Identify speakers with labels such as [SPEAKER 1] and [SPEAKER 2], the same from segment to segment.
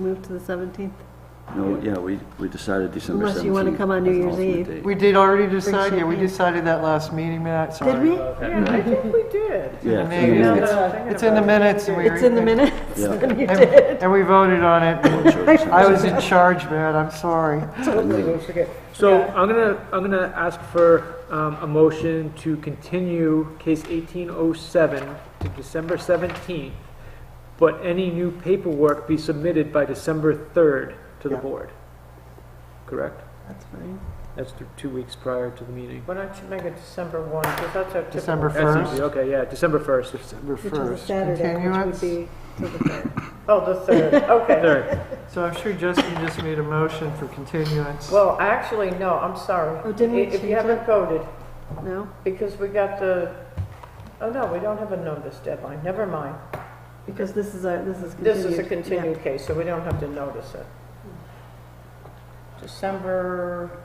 [SPEAKER 1] Move to the 17th.
[SPEAKER 2] No, yeah, we, we decided December 17th.
[SPEAKER 1] Unless you wanna come on New
[SPEAKER 2] as an
[SPEAKER 1] Year's
[SPEAKER 2] alternate
[SPEAKER 1] Eve.
[SPEAKER 2] date.
[SPEAKER 3] We did already decide, yeah, we
[SPEAKER 1] Appreciate it.
[SPEAKER 3] decided that last meeting, Matt, sorry.
[SPEAKER 1] Did we?
[SPEAKER 4] Yeah, I think we did.
[SPEAKER 2] Yeah,
[SPEAKER 3] the
[SPEAKER 2] it's in the
[SPEAKER 3] minutes.
[SPEAKER 2] minutes.
[SPEAKER 3] It's in the minutes. and we-
[SPEAKER 1] It's in the minutes,
[SPEAKER 2] Yeah.
[SPEAKER 1] and you
[SPEAKER 3] And
[SPEAKER 1] did.
[SPEAKER 3] and we voted on it.
[SPEAKER 2] Sure, it's in
[SPEAKER 3] I
[SPEAKER 2] the
[SPEAKER 3] was in charge, Matt, I'm sorry.
[SPEAKER 2] minutes.
[SPEAKER 4] So I'm gonna, I'm gonna ask for um, a motion to continue case 1807 to December 17th, but any new paperwork be submitted by December 3rd to the
[SPEAKER 3] Yeah.
[SPEAKER 4] board. Correct?
[SPEAKER 1] That's fine.
[SPEAKER 4] That's th- two weeks prior to the meeting.
[SPEAKER 5] Why don't you make it December 1, because that's our typical...
[SPEAKER 3] December
[SPEAKER 4] That's
[SPEAKER 3] 1st,
[SPEAKER 4] easy, okay, yeah, December 1st.
[SPEAKER 3] December
[SPEAKER 1] Which is a
[SPEAKER 3] 1st.
[SPEAKER 1] Saturday, which
[SPEAKER 3] Continuance.
[SPEAKER 1] would be to the 3rd.
[SPEAKER 5] Oh, the 3rd, okay.
[SPEAKER 4] 3rd,
[SPEAKER 3] So I'm sure Justin just made a motion for continuance.
[SPEAKER 5] Well, actually, no, I'm sorry.
[SPEAKER 1] Oh, didn't we
[SPEAKER 5] If
[SPEAKER 1] change
[SPEAKER 5] you haven't
[SPEAKER 1] it?
[SPEAKER 5] voted,
[SPEAKER 1] No?
[SPEAKER 5] because we got the, oh, no, we don't have a notice deadline, never mind.
[SPEAKER 1] Because this is our, this is continued.
[SPEAKER 5] This is a
[SPEAKER 1] Yeah.
[SPEAKER 5] continued case, so we don't have to notice it. December, Or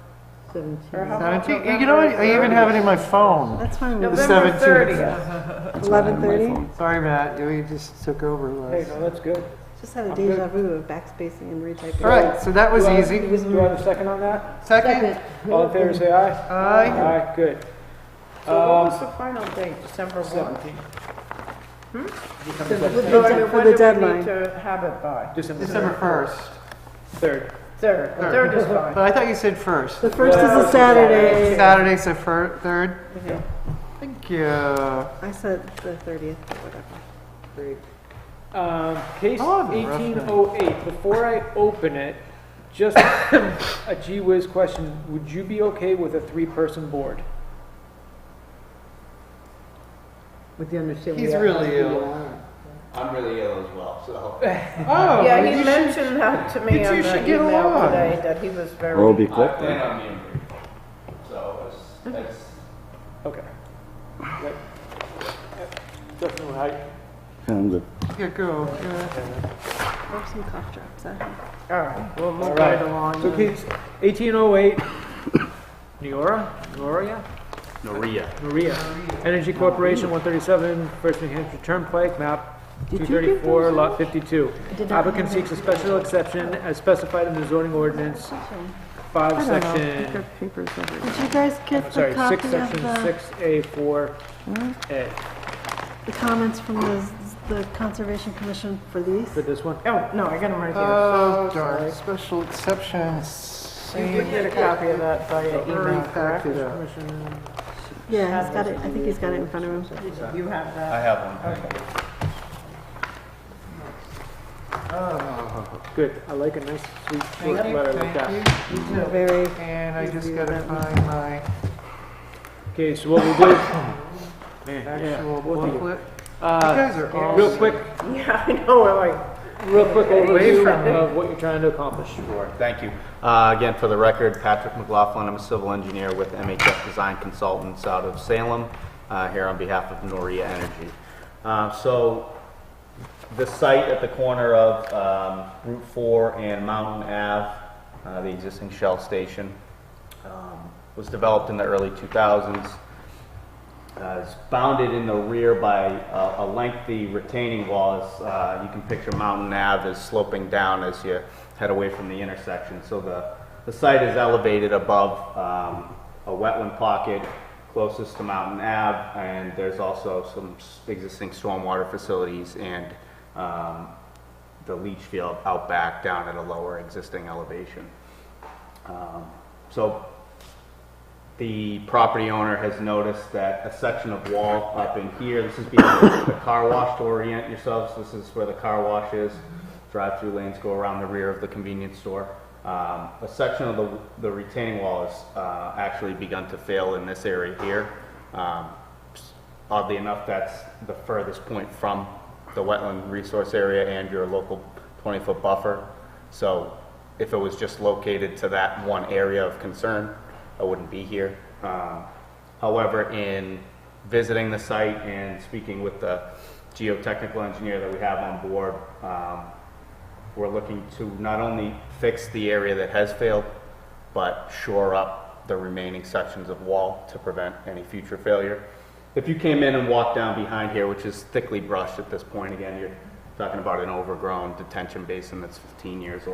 [SPEAKER 5] how-
[SPEAKER 1] 17th.
[SPEAKER 3] Now, I think- You know, what? I even have it in my phone.
[SPEAKER 1] That's fine. with me.
[SPEAKER 5] November
[SPEAKER 3] 17th.
[SPEAKER 5] 30th.
[SPEAKER 2] It's not on my
[SPEAKER 1] 11:30?
[SPEAKER 2] phone.
[SPEAKER 3] Sorry, Matt, you just took over
[SPEAKER 5] There you
[SPEAKER 3] last.
[SPEAKER 5] go, that's good.
[SPEAKER 1] Just had a deja vu of backspacing and retyping.
[SPEAKER 3] All right, so that was easy.
[SPEAKER 4] do I have a second on that?
[SPEAKER 3] Second,
[SPEAKER 4] All in favor, say aye.
[SPEAKER 3] aye.
[SPEAKER 4] Aye, good.
[SPEAKER 5] So what was the final date, December 1?
[SPEAKER 4] 17th.
[SPEAKER 1] For
[SPEAKER 5] So I mean,
[SPEAKER 1] the- for
[SPEAKER 5] when
[SPEAKER 1] the
[SPEAKER 5] do we need
[SPEAKER 1] deadline.
[SPEAKER 5] to have it by?
[SPEAKER 4] December
[SPEAKER 3] December 1st.
[SPEAKER 4] 3rd.
[SPEAKER 5] 3rd, the 3rd is fine.
[SPEAKER 3] But I thought you said first.
[SPEAKER 1] The 1st is a Saturday.
[SPEAKER 3] Saturday, so fir- third. Thank you. How
[SPEAKER 1] I said the 30th, but whatever.
[SPEAKER 4] Um, case
[SPEAKER 3] Oh, rough night.
[SPEAKER 4] eighteen oh eight, before I open it, just a gee whiz question, would you be okay with a three-person board?
[SPEAKER 5] With the understanding.
[SPEAKER 3] He's really ill.
[SPEAKER 6] I'm really ill as well, so.
[SPEAKER 3] Oh,
[SPEAKER 5] Yeah,
[SPEAKER 3] you
[SPEAKER 5] he
[SPEAKER 3] should-
[SPEAKER 5] mentioned that to
[SPEAKER 3] you
[SPEAKER 5] me
[SPEAKER 3] two
[SPEAKER 5] on
[SPEAKER 3] should
[SPEAKER 5] the
[SPEAKER 3] get
[SPEAKER 5] email
[SPEAKER 3] along.
[SPEAKER 5] today, that he was very...
[SPEAKER 2] Or we'll be
[SPEAKER 6] I
[SPEAKER 2] quick
[SPEAKER 6] plan
[SPEAKER 2] then.
[SPEAKER 6] on being grateful. So it's, that's,
[SPEAKER 4] Okay. Right. Justin, how-
[SPEAKER 2] Yeah, I'm good.
[SPEAKER 3] Yeah, go. uh, yeah.
[SPEAKER 1] Or some cough drops. I-
[SPEAKER 5] All right, we'll
[SPEAKER 4] All
[SPEAKER 5] move
[SPEAKER 4] right.
[SPEAKER 5] right along.
[SPEAKER 4] So
[SPEAKER 5] then.
[SPEAKER 4] case eighteen oh eight, Neora, Noria,
[SPEAKER 6] Maria.
[SPEAKER 4] Maria, Energy Corporation, one thirty-seven, First New Hampshire Turnpike, map
[SPEAKER 1] Did
[SPEAKER 4] two
[SPEAKER 1] you give
[SPEAKER 4] thirty-four,
[SPEAKER 1] those
[SPEAKER 4] lot fifty-two.
[SPEAKER 1] did not
[SPEAKER 4] Applicant
[SPEAKER 1] have
[SPEAKER 4] seeks a special exception as specified in the zoning ordinance,
[SPEAKER 1] I
[SPEAKER 4] five
[SPEAKER 1] don't know. I've
[SPEAKER 4] section
[SPEAKER 1] got papers everywhere. Did you guys get the
[SPEAKER 4] Sorry,
[SPEAKER 1] copy of
[SPEAKER 4] six,
[SPEAKER 1] the? Hmm?
[SPEAKER 4] section six, A, four, A,
[SPEAKER 1] the comments from the, the Conservation Commission for these?
[SPEAKER 4] for this one?
[SPEAKER 5] Oh, no, I got him right here.
[SPEAKER 3] Oh,
[SPEAKER 5] So
[SPEAKER 3] darn.
[SPEAKER 5] sorry.
[SPEAKER 3] Special exceptions.
[SPEAKER 5] You did get a copy of that via email, correct?
[SPEAKER 1] Yeah, he's got it, I think he's got it in front of him.
[SPEAKER 5] You have
[SPEAKER 6] I
[SPEAKER 5] that?
[SPEAKER 6] have one.
[SPEAKER 4] Good, I like a nice sweet short
[SPEAKER 3] Thank you,
[SPEAKER 4] letter like that.
[SPEAKER 3] thank you.
[SPEAKER 1] Very,
[SPEAKER 3] And I just
[SPEAKER 1] Review
[SPEAKER 3] gotta
[SPEAKER 1] that
[SPEAKER 3] find my
[SPEAKER 4] Okay, so what we'll do,
[SPEAKER 3] actual
[SPEAKER 4] What do you-
[SPEAKER 3] booklet. You
[SPEAKER 4] uh,
[SPEAKER 3] guys are all.
[SPEAKER 4] real quick,
[SPEAKER 5] Yeah, I know, we're like,
[SPEAKER 4] real quick
[SPEAKER 3] Away
[SPEAKER 4] overview
[SPEAKER 3] from it.
[SPEAKER 4] of what you're trying to accomplish.
[SPEAKER 6] Sure, thank you. Uh, Again, for the record, Patrick McLaughlin, I'm a civil engineer with MHF Design Consultants out of Salem, uh, here on behalf of Noria Energy. Uh, So the site at the corner of um, Route 4 and Mountain Ave, uh, the existing Shell station, um, was developed in the early 2000s. Uh, It's bounded in the rear by a a lengthy retaining wall. It's, uh, You can picture Mountain Ave is sloping down as you head away from the intersection. So the, the site is elevated above um, a wetland pocket closest to Mountain Ave, and there's also some s- existing stormwater facilities and um, the leach field out back down at a lower existing elevation. Um, So the property owner has noticed that a section of wall up in here, this is behind the car wash to orient yourselves, this is where the car wash is. Drive-through lanes go around the rear of the convenience store. Um, a section of the, the retaining wall has, uh, actually begun to fail in this area here. Um, oddly enough, that's the furthest point from the wetland resource area and your local 20-foot buffer. So if it was just located to that one area of concern, I wouldn't be here. Um, However, in visiting the site and speaking with the geotechnical engineer that we have on board, um, we're looking to not only fix the area that has failed, but shore up the remaining sections of wall to prevent any future failure. If you came in and walked down behind here, which is thickly brushed at this point, again, you're talking about an overgrown detention basin that's 15 years old.